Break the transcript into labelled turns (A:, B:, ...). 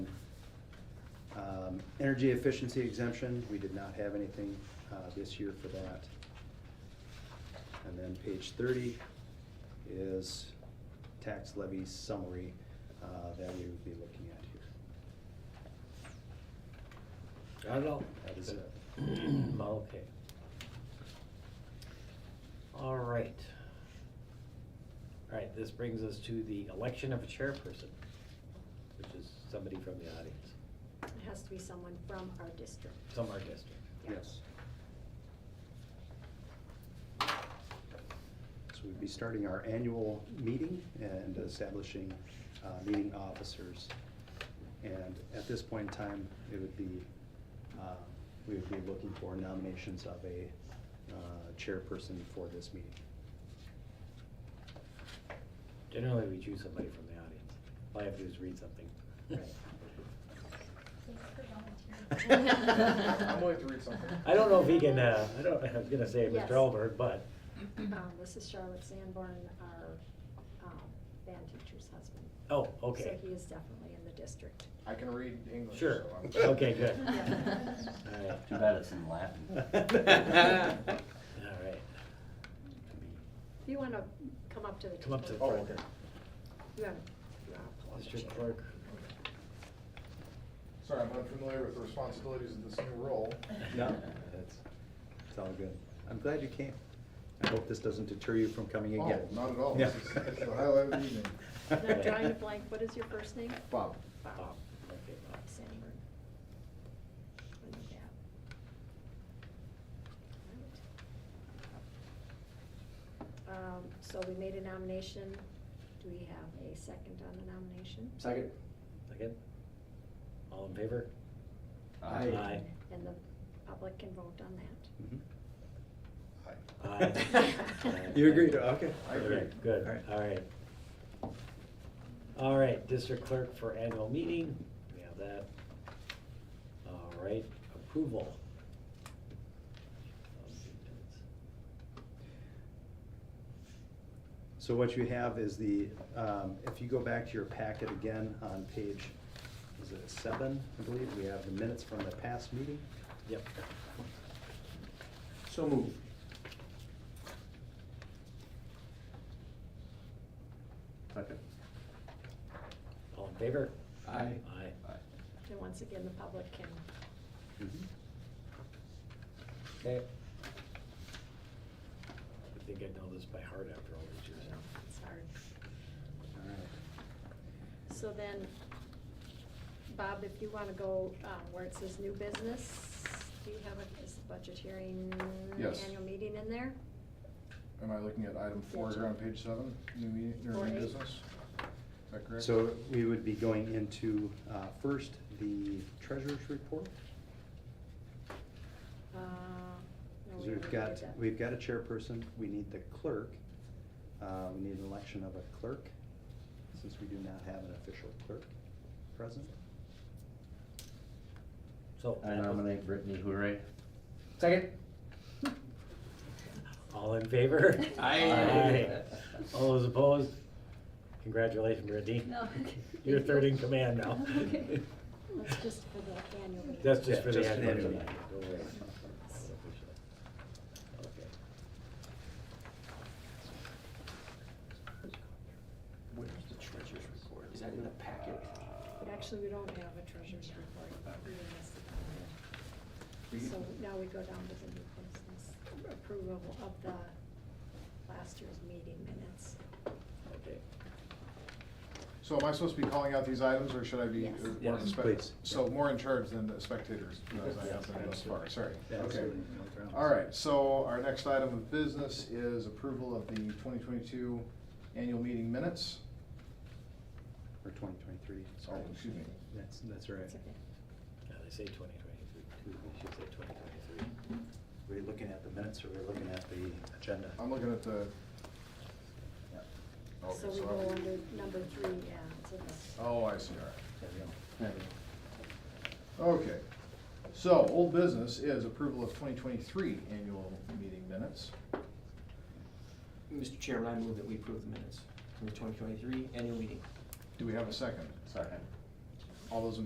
A: Um, Energy efficiency exemption, we did not have anything uh, this year for that. And then page thirty is tax levy summary uh, that we would be looking at here.
B: I don't know.
A: That is it.
B: Okay. All right. All right, this brings us to the election of a chairperson, which is somebody from the audience,
C: It has to be someone from our district.
B: from our district.
C: Yeah.
A: Yes. So we'd be starting our annual meeting and establishing uh, meeting officers. And at this point in time, it would be, uh, we would be looking for nominations of a uh, chairperson for this meeting.
B: Generally, we choose somebody from the audience. All I have to do is read something.
D: I'm willing to read something.
B: I don't know if he can, uh, I don't, I was gonna say
C: Yes.
B: Mr. Elberg, but,
C: Um, This is Charlotte Sanborn, our um, band teacher's husband.
B: oh, okay.
C: So he is definitely in the district.
D: I can read English.
B: Sure.
D: so I'm-
B: Okay, good.
E: Yeah.
B: All right.
F: Too bad it's in Latin.
B: All right.
C: If you want to come up to the.
B: Come up to the
D: Oh,
B: front.
D: okay.
C: You wanna- you wanna pull up a
B: District
C: chair.
B: clerk.
D: Sorry, I'm unfamiliar with the responsibilities of this new role.
A: No, that's, it's all good. I'm glad you came. I hope this doesn't deter you from coming
D: Oh,
A: again.
D: not at all.
A: Yeah.
D: This is- it's the highlight of the evening.
C: And I'm drawing a blank, what is your first name?
D: Bob.
B: Bob.
C: Bob
B: Okay, Bob.
C: Sanborn. I know that. All right. Um, So we made a nomination. Do we have a second on the nomination?
F: Second?
B: Second? All in favor?
A: Aye.
C: And the public can vote on that.
A: Mhm.
D: Hi.
B: Aye.
A: Mm-hmm. You agree to, okay.
D: I agree.
B: Okay, Good,
A: All right.
B: all right. All right, district clerk for annual meeting, we have that. All right, approval.
A: So what you have is the, um, if you go back to your packet again on page, is it seven, I believe, we have the minutes from the past meeting.
B: Yep,
F: So move. Second.
B: all in favor?
F: Aye.
B: Aye.
C: And once again, the public can,
A: Mhm.
B: Okay. I think I know this by heart after all these years.
C: you know, it's hard.
A: All right.
C: So then, Bob, if you want to go um, where it says new business, do you have a, is the budget hearing?
D: Yes.
C: Annual meeting in there?
D: Am I looking at item four here on page seven, new meeting, or
C: Four
D: new
C: eight.
D: business? Is that correct?
A: So we would be going into, uh, first, the treasurer's report.
C: Uh,
A: Because
C: no, we already
A: we've
C: did
A: got,
C: that.
A: we've got a chairperson, we need the clerk, uh, we need an election of a clerk, since we do not have an official clerk present.
B: So.
F: I nominate Brittany Hooray.
D: Second.
B: All in favor?
F: Aye.
B: Aye. All those opposed? Congratulations, Brittany.
E: No.
B: You're third in command now.
E: Okay.
C: That's just for the annual meeting.
B: That's just
A: Yeah,
B: for the
A: just for the
B: annual
A: annual
B: meeting.
A: meeting.
B: Don't worry. Okay.
F: Where's the treasurer's report? Is that in the packet?
C: But Actually, we don't have a treasurer's report. We missed it. So now we go down to the new business, approval of the last year's meeting minutes.
B: Okay.
D: So am I supposed to be calling out these items, or should I be?
C: Yes.
D: or more
A: Yes,
D: in spe-
A: please.
D: So more in charge than the spectators, as I have been thus far, sorry.
A: Yeah,
D: Okay.
A: absolutely. No problems.
D: All right, so our next item of business is approval of the 2022 annual meeting minutes.
A: Or twenty twenty-three,
D: Oh,
A: sorry.
D: excuse me.
A: That's, that's right.
C: That's okay.
B: Now, they say twenty twenty-three, two, they should say twenty twenty-three.
A: Were you looking at the minutes or were you looking at the agenda?
D: I'm looking at the. oh, Okay,
C: So we
D: I'll
C: go
D: be-
C: under number three, yeah, it's in this.
D: Oh, I see, all right.
A: There we go.
D: Okay, so old business is approval of twenty twenty-three annual meeting minutes.
G: Mr. Chairman, I move that we approve the minutes from the 2023 annual meeting.
D: Do we have a second?
F: Second.
D: All those in